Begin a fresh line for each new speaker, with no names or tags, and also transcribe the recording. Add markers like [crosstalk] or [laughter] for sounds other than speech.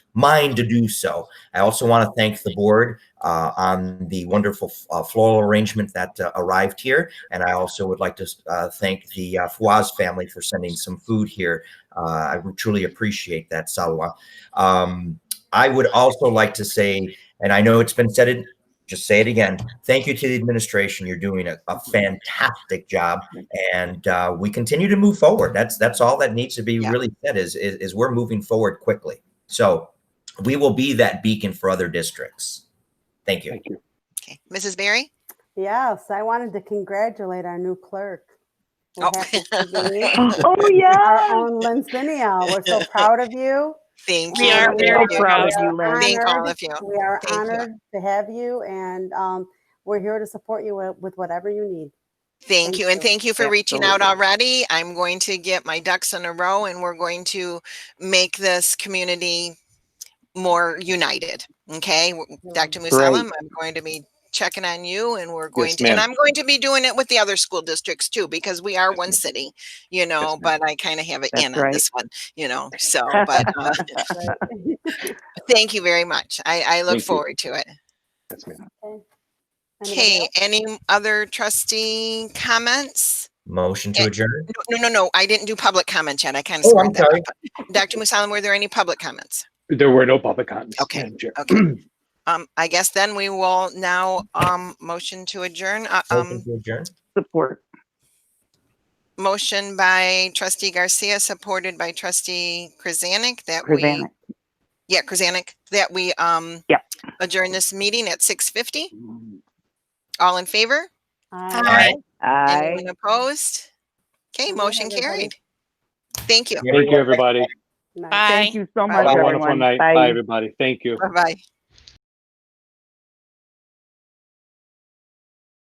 mind to do so. I also want to thank the board uh, on the wonderful uh, floral arrangement that uh, arrived here. And I also would like to uh, thank the uh, Fawaz family for sending some food here. Uh, I truly appreciate that, Salwa. Um, I would also like to say, and I know it's been said, it, just say it again. Thank you to the administration. You're doing a, a fantastic job and uh, we continue to move forward. That's that's all that needs to be
Yeah.
really said is, is is we're moving forward quickly. So we will be that beacon for other districts. Thank you.
Thank you.
Okay, Mrs. Berry?
Yes, I wanted to congratulate our new clerk. who
Oh.
happens to be
[laughs] Oh,
Our
yeah.
own Lynn Spinio.
[laughs]
We're so proud of you.
Thank
We
you.
are
and
very
Thank you.
proud of
we
you,
are
Lynn.
Thank all
honored-
of you.
We are
Thank you.
honored to have you and um, we're here to support you with- with whatever you need.
Thank you, and
you.
thank you for reaching out
Absolutely.
already. I'm going to get my ducks in a row and we're going to make this community more united, okay? W- Dr. Musalam, I'm going to be checking on you and we're going
Yes,
to, and
ma'am.
I'm going to be doing it with the other school districts too, because we are one city, you know,
ma'am.
but I kind of have it
That's
in on
right.
this one, you know, so, but uh,
Right?
[laughs] thank you very much. I, I
Thank
look
you.
forward to it.
Yes, ma'am.
Anybody
Okay,
else?
any other trustee comments?
Motion to
Eh,
adjourn.
No, no, no, I didn't do public comments yet. I kind of
Oh, I'm
screwed that
sorry.
up. Dr. Musalam, were there any public comments?
There were no public comments.
Okay,
Madam Chair.
okay. Um, I guess then we will now, um, motion to adjourn, uh,
Motion
um,
to adjourn.
Support.
motion by trustee Garcia, supported by trustee Krasanik that we,
Krasanik.
yeah, Krasanik, that we, um,
Yep.
adjourn this meeting at six fifty. All in favor?
Aye.
Aye.
Anyone opposed? Okay,
Good night,
motion
everybody.
carried. Thank you.
Thank you, everybody.
Nice.
Thank you
Bye.
so much,
Have a
everyone.
wonderful night. Bye, everybody. Thank you.
Bye-bye.